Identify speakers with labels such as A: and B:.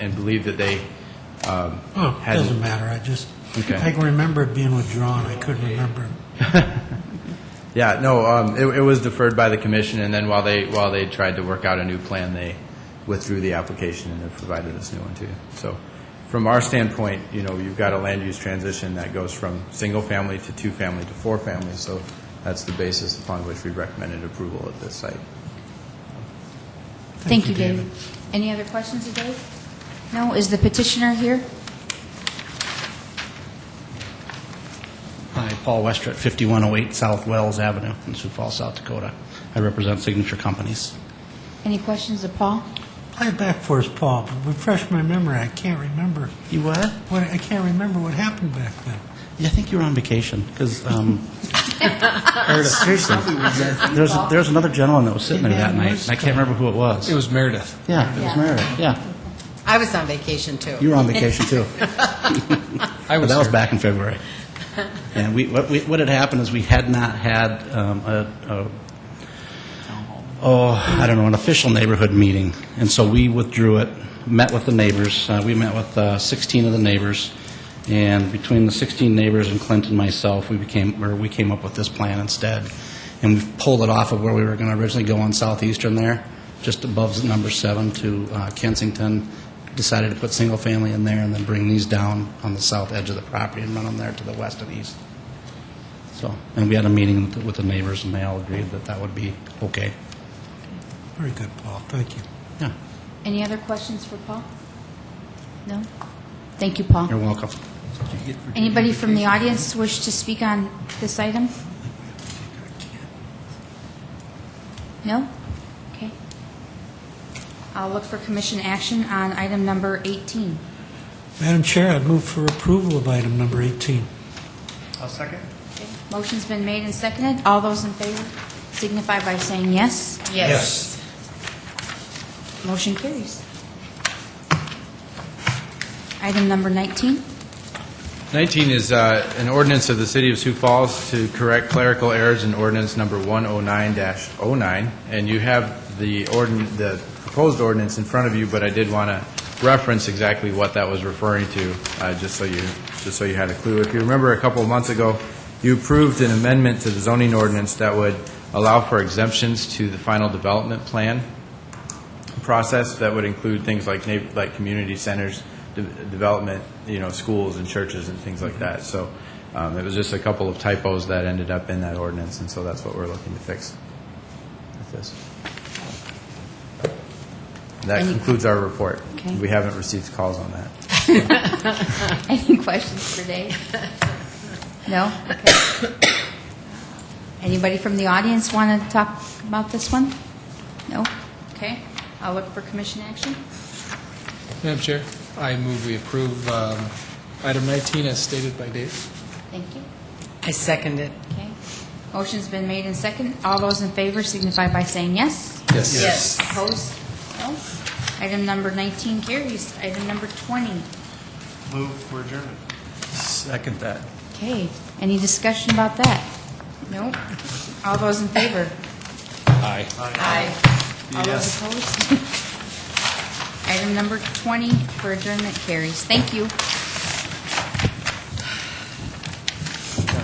A: and believe that they um,
B: Oh, it
A: hadn't.
B: doesn't matter, I just,
A: Okay.
B: I can remember it being withdrawn, I couldn't remember.
A: Yeah, no, um, it, it was deferred by the commission, and then while they, while they tried to work out a new plan, they withdrew the application and have provided us new one too. So from our standpoint, you know, you've got a land use transition that goes from single-family to two-family to four-family, so that's the basis upon which we recommended approval at this site.
B: Thank
C: Thank
B: you,
C: you, David. Any other questions of Dave? No? Is the petitioner here?
D: Hi, Paul Wester at 5108 South Wells Avenue in Sioux Falls, South Dakota. I represent Signature Companies.
C: Any questions of Paul?
B: Play it back for us, Paul, refresh my memory, I can't remember,
D: You what?
B: what, I can't remember what happened back then.
D: Yeah, I think you were on vacation, because, um... Seriously. There's, there's another gentleman that was sitting there that
B: Yeah,
D: night,
B: most
D: and I can't remember who it was.
E: It was Meredith.
D: Yeah, it was
C: Yeah.
D: Meredith, yeah.
F: I was on vacation too.
D: You were on vacation, too.
E: I
D: But
E: was
D: that was
E: there.
D: back in February. And we, what, we, what had happened is we had not had um, a, a oh, I don't know, an official neighborhood meeting. And so we withdrew it, met with the neighbors. Uh, we met with uh, 16 of the neighbors. And between the 16 neighbors and Clint and myself, we became, or we came up with this plan instead. And we pulled it off of where we were going to originally go on Southeastern there, just above number seven to uh, Kensington. Decided to put single family in there and then bring these down on the south edge of the property and run them there to the west and east. So, and we had a meeting with the- with the neighbors and they all agreed that that would be okay.
B: Very good, Paul, thank you.
D: Yeah,
C: Any other questions for Paul? No? Thank you, Paul.
D: you're welcome.
C: Anybody from the audience wish to speak on this item? No? Okay. I'll look for commission action on item number 18.
B: Madam Chair, I'd move for approval of item number 18.
C: Motion's been made and seconded. All those in favor signify by saying yes.
F: Yes.
C: Motion carries. Item number 19.
A: 19 is uh, an ordinance of the City of Sioux Falls to correct clerical errors in ordinance number 109-09, and you have the ordin, the proposed ordinance in front of you, but I did want to reference exactly what that was referring to, uh, just so you, just so you had a clue. If you remember, a couple of months ago, you approved an amendment to the zoning ordinance that would allow for exemptions to the final development plan process that would include things like, neigh- like community centers, de- development, you know, schools and churches and things like that. So um, it was just a couple of typos that ended up in that ordinance, and so that's what we're looking to fix with this. That
C: Any-
A: concludes our report.
C: Okay.
A: We haven't received calls on that.
C: Any questions for Dave? No? Okay. Anybody from the audience want to talk about this one? No? Okay. I'll look for commission action.
E: Madam Chair, I move we approve um, item 19 as stated by Dave.
C: Thank you.
F: I second it.
C: Okay. Motion's been made and second. All those in favor signify by saying yes.
E: Yes.
C: Opposed? No. Item number 19 carries. Item number 20.
G: Move for adjournment.
D: Second that.
C: Okay, any discussion about that? Nope. All those in favor?
E: Aye.
C: Aye. All
G: Yes.
C: those opposed? Item number 20 for adjournment carries. Thank you.